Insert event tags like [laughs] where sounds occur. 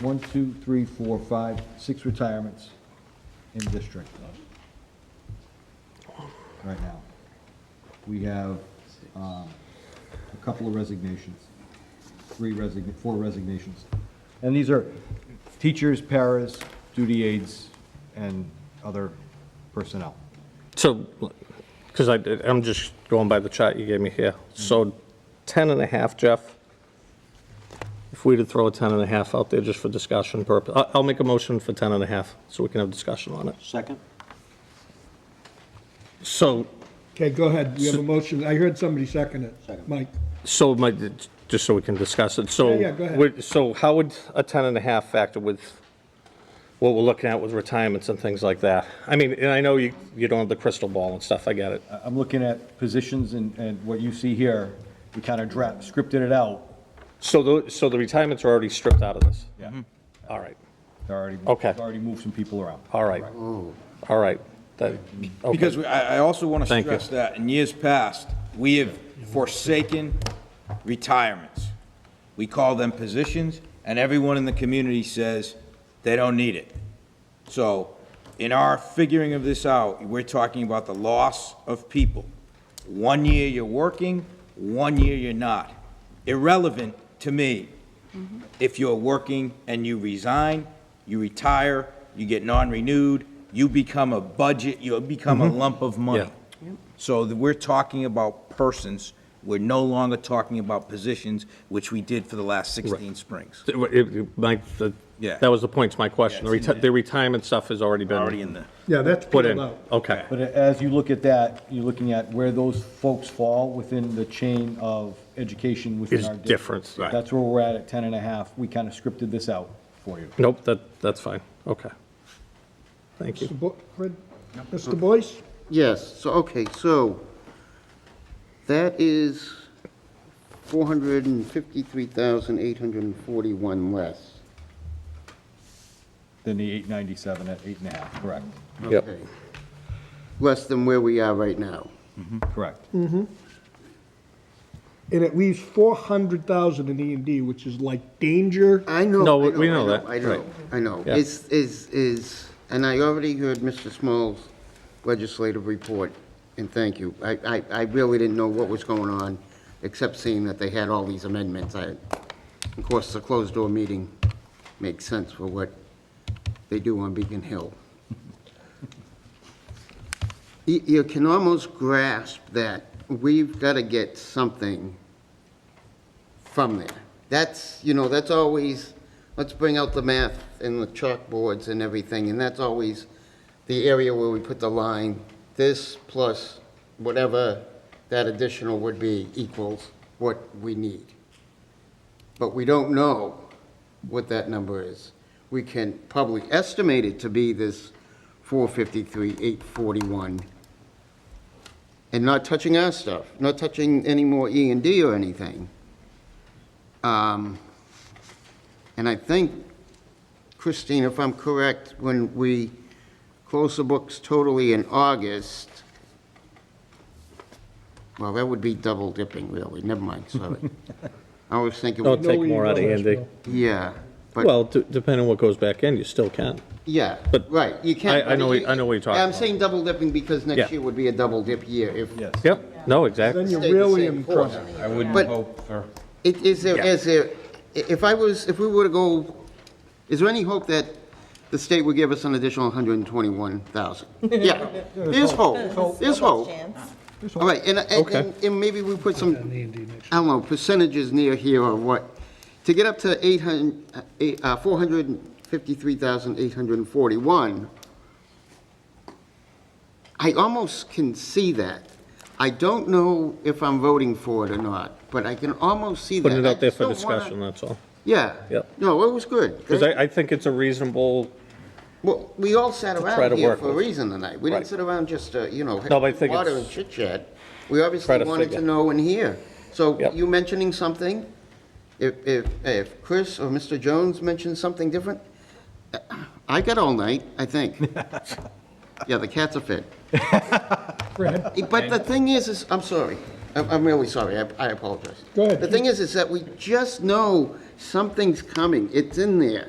one, two, three, four, five, six retirements in district right now. We have um, a couple of resignations, three resign, four resignations. And these are teachers, paras, duty aides, and other personnel. So, because I, did- I'm just going by the chart you gave me here. So 10 and a half, Jeff, if we were to throw a 10 and a half out there just for discussion purpose, I- I'll make a motion for 10 and a half so we can have discussion on it. Second? So, Okay, go ahead. We have a motion. I heard somebody second it. Second. Mike, so my, just so we can discuss it, so. Yeah, yeah, go ahead. we're- So how would a 10 and a half factor with what we're looking at with retirements and things like that? I mean, and I know you, you don't have the crystal ball and stuff, I get it. I- I'm looking at positions and, and what you see here, we kind of draft, scripted it out. So the, so the retirements are already stripped out of this? Yeah. Mm-hmm. All right. They're Already, Okay. they've already moved some people around. All right. All right. That- okay. Because we- I, I also want to Thank you. stress that in years past, we have forsaken retirements. We call them positions, and everyone in the community says they don't need it. So in our figuring of this out, we're talking about the loss of people. One year you're working, one year you're not. Irrelevant to me if you're working and you resign, you retire, you get non-renewed, you become a budget, you become a lump of money. So that we're talking about persons, we're no longer talking about positions, which we did for the last 16 springs. It- it- My, the- Yeah. that was the point, it's my question. The Yeah, it's in reti- The retirement stuff has already been. Already in the, yeah, that's Put peeled in, out. okay. But as you look at that, you're looking at where those folks fall within the chain of education within Is our district. different, right. That's where we're at at 10 and a half. We kind of scripted this out for you. Nope, that, that's fine, okay. Thank you. Mr. Bo- Fred- Mr. Boyce? Yes, so, okay, so that is 453,841 less. Then the 897 at eight and a half, correct? Yep. Okay. Less than where we are right now. Correct. And it leaves 400,000 in E and D, which is like danger. I know. No, I we- we know I that, I know, right. I know. Yeah. It's, is, is, and I already heard Mr. Small's legislative report, and thank you. I, I, I really didn't know what was going on, except seeing that they had all these amendments. I, of course, the closed-door meeting makes sense for what they do on Beacon Hill. [laughs] You, you can almost grasp that we've got to get something from there. That's, you know, that's always, let's bring out the math and the chalkboards and everything, and that's always the area where we put the line, this plus whatever that additional would be equals what we need. But we don't know what that number is. We can probably estimate it to be this 453, 841, and not touching our stuff, not touching any more E and D or anything. Um, And I think, Christine, if I'm correct, when we close the books totally in August, well, that would be double dipping, really, never mind, sorry. I was thinking, Don't know take where more you're out of going, Andy. Bill. yeah, but, Well, d- depending on what goes back in, you still can. yeah, but right, you can't. I- I know what- I know what you're talking I'm about. saying double dipping because Yeah. next year would be a double dip year if. Yes. Yep, no, Then exactly. you're stayed the really same in course. trouble. I wouldn't But- hope for, It- Is there, Yeah. is there, i- if I was, if we were to go, is there any hope that the state would give us an additional [laughs] 121,000? Yeah, there's hope, there's hope. All right, and, and- Okay. and, and maybe we put some, I don't know, percentages near here or what, to get up to 800, eight- uh, 453,841, I almost can see that. I don't know if I'm voting for it or not, but I can almost see that. Put it out there for I just don't wanna- discussion, that's all. Yeah. Yep. No, it was good. Because I, I think it's a reasonable, Well, we all sat To try to around here work for a with. reason tonight. We didn't Right. sit around just, uh, you know, No, but I think water it's- and chit-chat. We obviously Try to wanted to figure. know and hear. So Yep. you mentioning something, if, if, if Chris or Mr. Jones mentioned something different, uh, I got all night, I [laughs] think. Yeah, the cats are fit. Fred, But the thing is, is, I'm sorry. I'm, I'm really sorry. I, I apologize. Go ahead. The thing is, is that we just know something's coming. It's in there.